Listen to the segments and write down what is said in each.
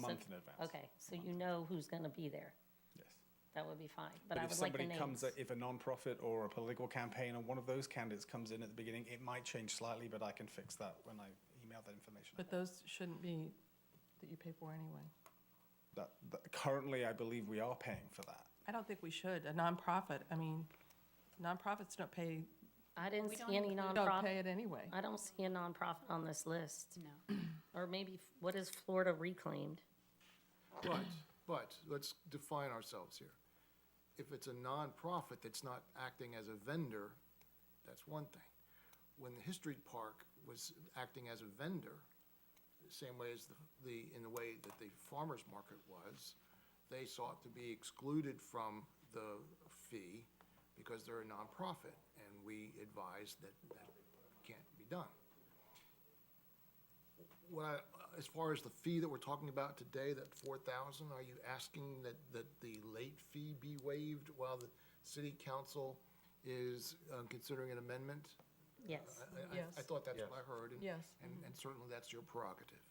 month in advance. Okay, so you know who's going to be there. Yes. That would be fine, but But I if would like the somebody names. comes, if a nonprofit or a political campaign or one of those candidates comes in at the beginning, it might change slightly, but I can fix that when I email that information. But those shouldn't be that you pay for anyway. That, that, currently, I believe we are paying for that. I don't think we should. A nonprofit, I mean, nonprofits don't pay, I didn't We see don't any include- don't nonprofit, pay it anyway. I don't see a nonprofit on this list. No. Or maybe, f- what is Florida reclaimed? But, but, let's define ourselves here. If it's a nonprofit that's not acting as a vendor, that's one thing. When the History Park was acting as a vendor, the same way as the, the, in the way that the farmer's market was, they sought to be excluded from the fee because they're a nonprofit, and we advised that that can't be done what I, uh, as far as the fee that we're talking about today, that four thousand, are you asking that, that the late fee be waived while the city council is um, considering an amendment? Yes, I- I- I Yes. thought that's what I heard. and- Yes. Mm-hmm. And, and certainly that's your prerogative.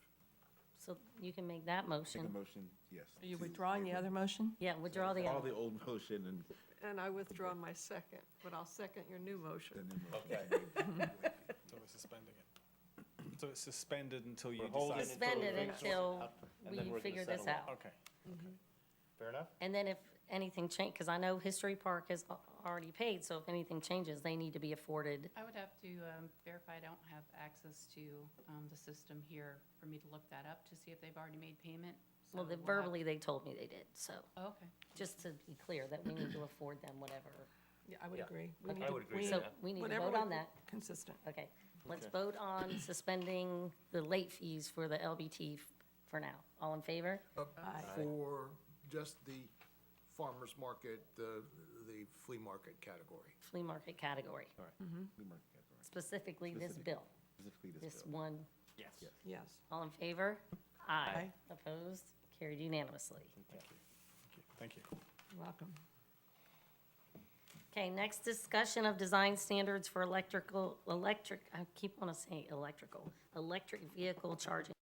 so you can make that Make a motion. motion, yes. Are you withdrawing the other motion? Yeah, withdraw the All other. the old motion and And I withdraw my second, but I'll second your new motion. the new motion. So we're suspending it. So it's suspended until you We're holding decide. it. Suspend it Until until we we figure something out, and then we're gonna figure this settle out. it. Okay. Fair enough? And then if anything change, because I know History Park has al- already paid, so if anything changes, they need to be afforded. I would have to um, verify, I don't have access to um, the system here for me to look that up to see if they've already made payment. Well, the- So we'll have- verbally, they told me they did, so, Oh, Okay. just to be clear, that we need to afford them whatever. Yeah, I would Yeah. agree. We need I to- would agree we- with So Yeah. we need to whatever vote we- on that. Consistent. Okay, let's vote on suspending the late fees for the LBT f- for now. All in favor? But Aye. For just the farmer's market, the, the flea market category. Flea market category, All right. We mark that, all right. specifically this Specific- bill, Oh. Specifically this this bill. one. Yes. Yes. All in favor? Aye. Aye. Opposed? Carried unanimously. Thank you. You're Welcome. Okay, next discussion of design standards for electrical, electric, I keep wanting to say electrical, electric vehicle charging